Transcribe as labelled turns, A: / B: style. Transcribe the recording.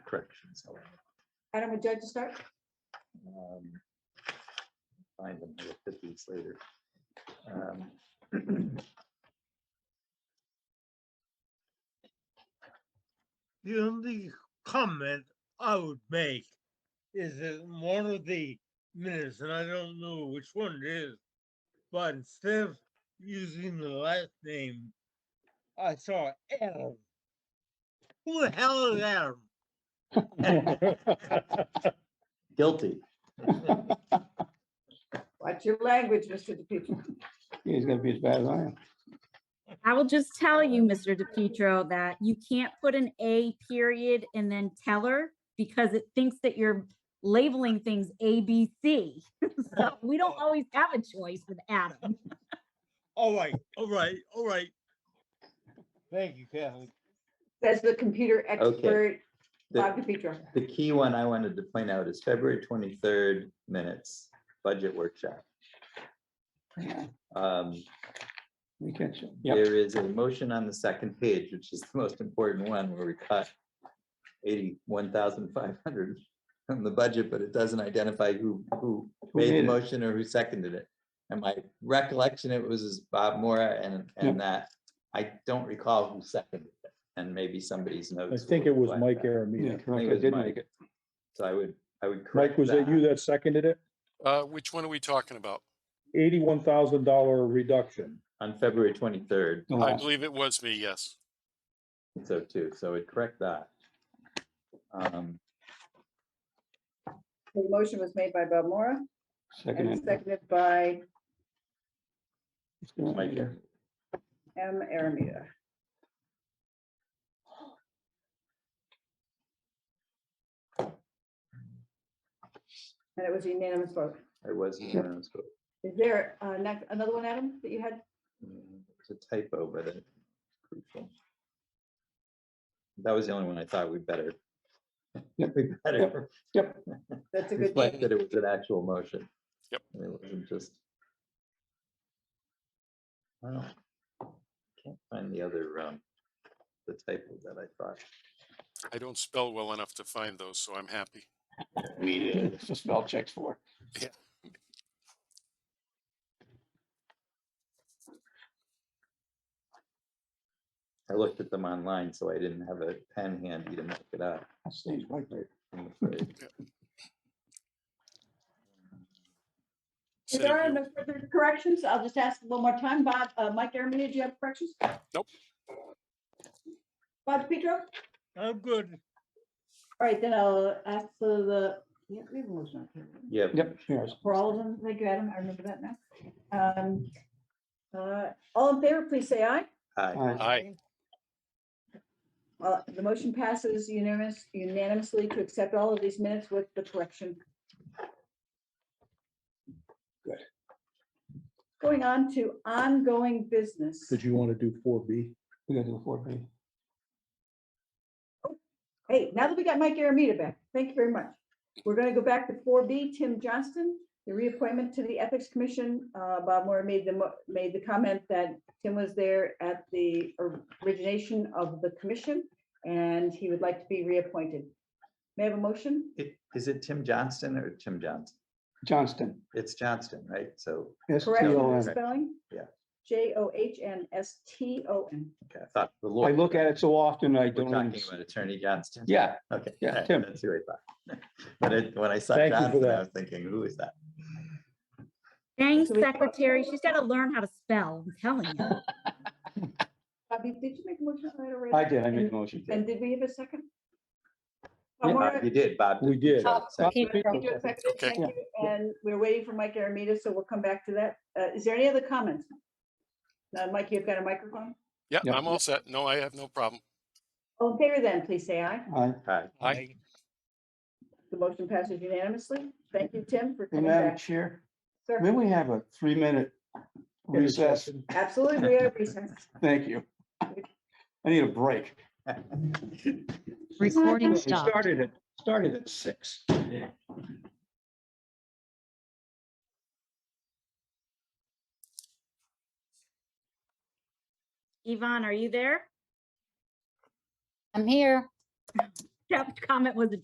A: corrections.
B: Adam, would you like to start?
A: Um, Find them, I looked at these later. Um,
C: The only comment I would make is that in one of the minutes, and I don't know which one it is, but instead of using the last name, I saw Adam. Who the hell is Adam?
A: Guilty.
B: Watch your language, Mr. DePietro.
D: He's gonna be as bad as I am.
E: I will just tell you, Mr. DePietro, that you can't put an A period and then teller because it thinks that you're labeling things A, B, C. So we don't always have a choice with Adam.
C: All right, all right, all right. Thank you, Kathleen.
B: That's the computer expert, Bob
A: The,
B: DePietro.
A: the key one I wanted to point out is February twenty-third minutes, budget workshop. Um,
D: We catch him. Yep,
A: There is a motion on the second page, which is the most important one, where we cut eighty-one thousand five hundred from the budget, but it doesn't identify who, who made
D: made
A: the
D: it?
A: motion or who seconded it. And my recollection, it was is Bob Mora and,
F: Yep.
A: and that, I don't recall who seconded it, and maybe somebody's
F: I
A: notes.
F: think
A: will
F: it was
A: reflect
F: Mike
A: that.
D: yeah,
F: Aramita.
D: correct, I
A: it was
D: did
A: Mike.
D: make it.
A: So I would, I would correct
F: Mike, was it you
A: that.
F: that seconded it?
G: Uh, which one are we talking about?
F: Eighty-one thousand dollar reduction.
A: On February twenty-third,
D: The
G: I
D: last-
G: believe it was me, yes.
A: so too, so I'd correct that. Um,
B: The motion was made by Bob Mora
D: Second.
B: and
D: entry.
B: seconded by
A: Mike,
B: M. Aramita. And it was unanimous vote.
A: I was.
G: Yep.
A: unanimous, but-
B: Is there uh, next- another one, Adam, that you had?
A: Mm, It's a typo, but it. crucial. That was the only one I thought we better.
D: Yep.
A: We better
B: That's a good
A: reflect
B: thing.
A: that it was an actual motion.
G: Yep.
A: and It wasn't just. Wow. Can't find the other, um, the typo that I thought.
G: I don't spell well enough to find those, so I'm happy.
D: We did, it's a spell checks for.
A: I looked at them online, so I didn't have a pen handy to make it up.
D: That stays right there.
A: I'm afraid.
B: If
G: Instead
B: there
G: of
B: are
G: you-
B: no further corrections, I'll just ask one more time. Bob, uh, Mike Aramita, do you have corrections?
G: Nope.
B: Bob DePietro?
C: I'm good.
B: All right, then I'll ask for the, yeah, we have a motion. on the table.
A: Yeah.
D: Yep, here's.
B: For all of them, thank you, Adam, I remember that now. Um, uh, All in favor, please say aye.
A: Hi,
D: Aye.
G: Aye,
B: Well, the motion passes unanimous unanimously to accept all of these minutes with the correction.
D: Good.
B: Going on to ongoing business.
F: Did you want to do four B?
D: We gotta do a four page.
B: Hey, now that we got Mike Aramita back, thank you very much. We're going to go back to four B, Tim Johnston, the reappointment to the Ethics Commission. Uh, Bob Moore made the, mo- made the comment that Tim was there at the origination of the commission, and he would like to be reappointed. May I have a motion?
A: It- Is it Tim Johnston or Tim Johnson?
D: Johnston.
A: It's Johnston, right? So,
B: Correct
A: Correction.
D: S-T-O-N.
B: the
A: T O N.
B: spelling?
A: Yeah.
B: J O H N S T O N.
A: okay, I thought the
D: I
A: lawyer.
D: look at it so often, I
A: We're
D: don't. even
A: talking
D: s-
A: about Attorney Johnston.
D: Yeah,
A: Okay.
D: yeah,
A: that-
D: Tim.
A: That's who I thought. But it, when I saw
F: Thank you for
A: Johnston, I
F: that.
A: was thinking, who is that?
E: Thanks,
B: So we-
E: secretary. She's got to learn how to spell. I'm telling you.
B: Bobby, did you make a motion on that already?
D: I did, I made
B: And-
D: a motion.
B: And did we have a second?
F: Yeah.
B: Amara,
A: Bob, Uh, You did, Bob.
F: We
A: did.
F: did.
B: Oh,
A: Second.
B: Peter,
D: Peter.
B: Peter seconded,
G: Okay.
B: thank you, And we're waiting for Mike Aramita, so we'll come back to that. Uh, Is there any other comments? Uh, Mike, you've got a microphone?
G: yeah,
D: Yeah.
G: I'm all set. No, I have no problem.
B: All in favor then, please say aye.
D: Aye.
A: Hi.
G: Aye.
B: The motion passes unanimously. Thank you, Tim, for
D: Hey,
B: coming
D: Madam
B: back.
D: Chair,
B: Sir,
D: may we have a three-minute recess?
F: Interception.
B: Absolutely, we are recessed.
D: Thank you. I need a break.
H: Recording
D: We
H: stopped.
D: Started at, started at six.
E: Yvonne, are you there?
H: I'm here.
E: that comment was a